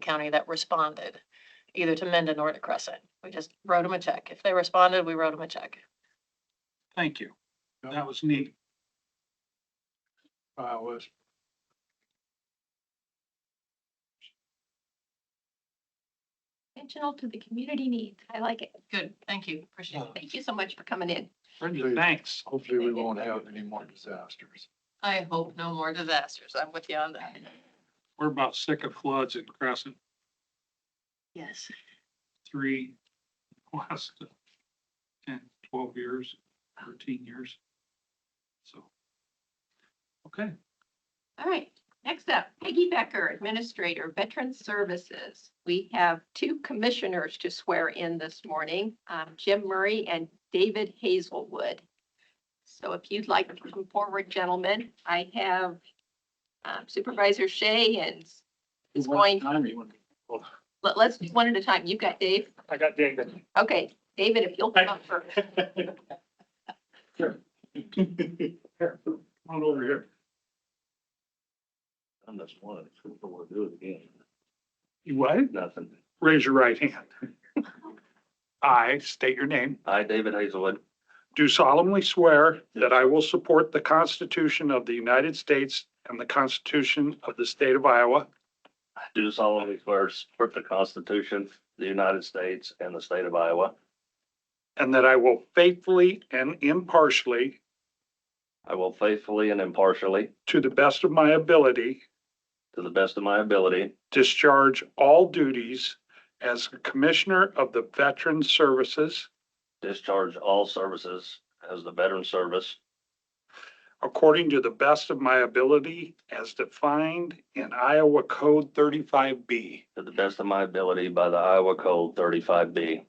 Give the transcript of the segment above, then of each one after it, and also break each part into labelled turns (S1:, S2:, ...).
S1: County that responded, either to Mendon or to Crescent. We just wrote them a check. If they responded, we wrote them a check.
S2: Thank you. That was neat. I was.
S3: Intentional to the community needs. I like it.
S1: Good, thank you, appreciate it.
S3: Thank you so much for coming in.
S2: Brendan, thanks.
S4: Hopefully, we won't have any more disasters.
S1: I hope no more disasters. I'm with you on that.
S2: We're about sick of floods in Crescent
S1: Yes.
S2: three, last ten, twelve years, thirteen years. So. Okay,
S3: All right, next up, Peggy Becker, Administrator, Veteran Services. We have two commissioners to swear in this morning, um, Jim Murray and David Hazelwood. So if you'd like to come forward, gentlemen, I have um, Supervisor Shea and is going, let- let's do one at a time. You've got Dave.
S5: I got David.
S3: Okay, David, if you'll come up first.
S5: Sure. On over here.
S4: Unless one, we'll do it again.
S2: you what?
S4: Nothing.
S2: Raise your right hand. I state your name.
S4: I, David Hazelwood,
S2: Do solemnly swear that I will support the Constitution of the United States and the Constitution of the State of Iowa,
S4: do solemnly swear to support the Constitution of the United States and the state of Iowa.
S2: and that I will faithfully and impartially,
S4: I will faithfully and impartially,
S2: to the best of my ability,
S4: to the best of my ability,
S2: discharge all duties as a Commissioner of the Veteran Services
S4: discharge all services as the veteran service
S2: according to the best of my ability as defined in Iowa Code 35B.
S4: to the best of my ability by the Iowa Code thirty-five B.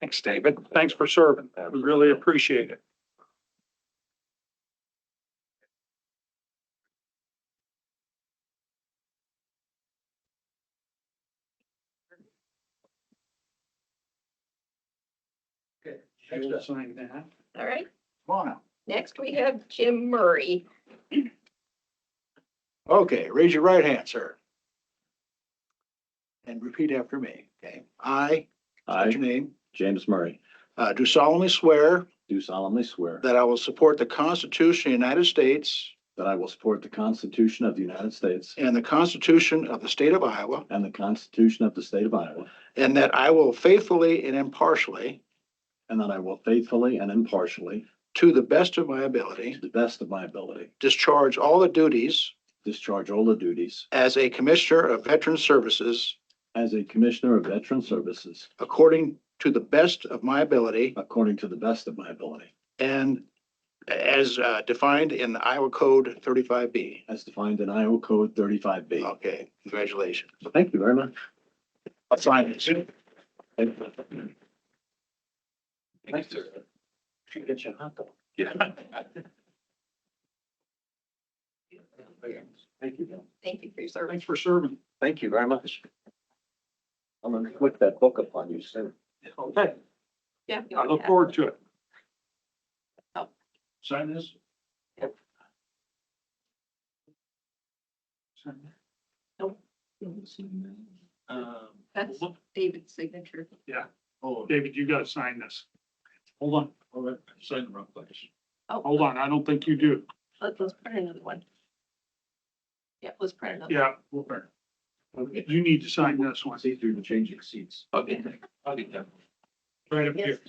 S2: Thanks, David. Thanks for serving. We really appreciate it. You'll sign that.
S3: All right,
S6: Come on up.
S3: next we have Jim Murray.
S6: Okay, raise your right hand, sir. And repeat after me, okay? I, state your
S7: I,
S6: name,
S7: James Murray,
S6: uh, do solemnly swear
S7: do solemnly swear
S6: that I will support the Constitution of the United States
S7: that I will support the Constitution of the United States
S6: and the Constitution of the State of Iowa,
S7: and the Constitution of the State of Iowa,
S6: and that I will faithfully and impartially,
S7: and that I will faithfully and impartially,
S6: to the best of my
S7: to
S6: ability,
S7: the best of my ability,
S6: discharge all the duties
S7: discharge all the duties
S6: as a Commissioner of Veteran Services
S7: as a Commissioner of Veteran Services
S6: according to the best of my ability
S7: according to the best of my ability,
S6: and as uh, defined in Iowa Code 35B.
S7: as defined in Iowa Code 35B.
S6: Okay, congratulations.
S7: Thank you very much.
S6: I'll sign it.
S4: Thanks, sir. Should get you a hot dog. Yeah. Thank you.
S3: Thank you for your service.
S2: Thanks for serving.
S4: Thank you very much. I'm gonna click that book upon you soon.
S2: Okay,
S3: Yeah. you
S2: I
S3: already
S2: look
S3: have.
S2: forward to it.
S6: Sign this?
S3: That's David's signature.
S2: David, you gotta sign this. Hold on,
S4: Sign the wrong place.
S2: hold on. I don't think you do.
S3: Oh, Let's, let's print another one. Yeah, let's print another.
S2: Yeah, you need to sign this one
S4: See through the changing seats. I'll get that. I'll get that.
S2: right up here.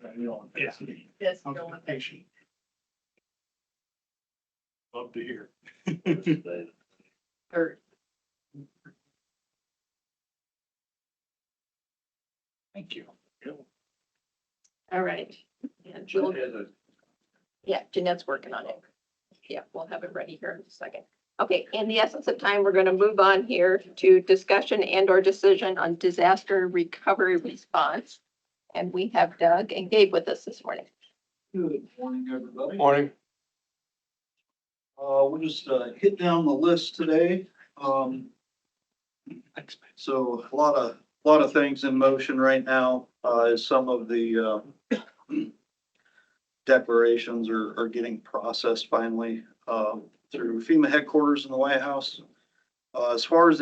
S4: Yeah.
S3: Yes.
S2: Love to hear.
S3: Third.
S2: Thank you.
S3: All right. And Jill, yeah, Jeanette's working on it. Yeah, we'll have it ready here in a second. Okay, in the essence of time, we're going to move on here to discussion and or decision on disaster recovery response. And we have Doug and Gabe with us this morning.
S6: Good morning, everybody. Morning. Uh, we'll just, uh, hit down the list today, um. So a lot of, lot of things in motion right now, uh, as some of the, uh, declarations are, are getting processed finally, uh, through FEMA headquarters in the White House. Uh, as far as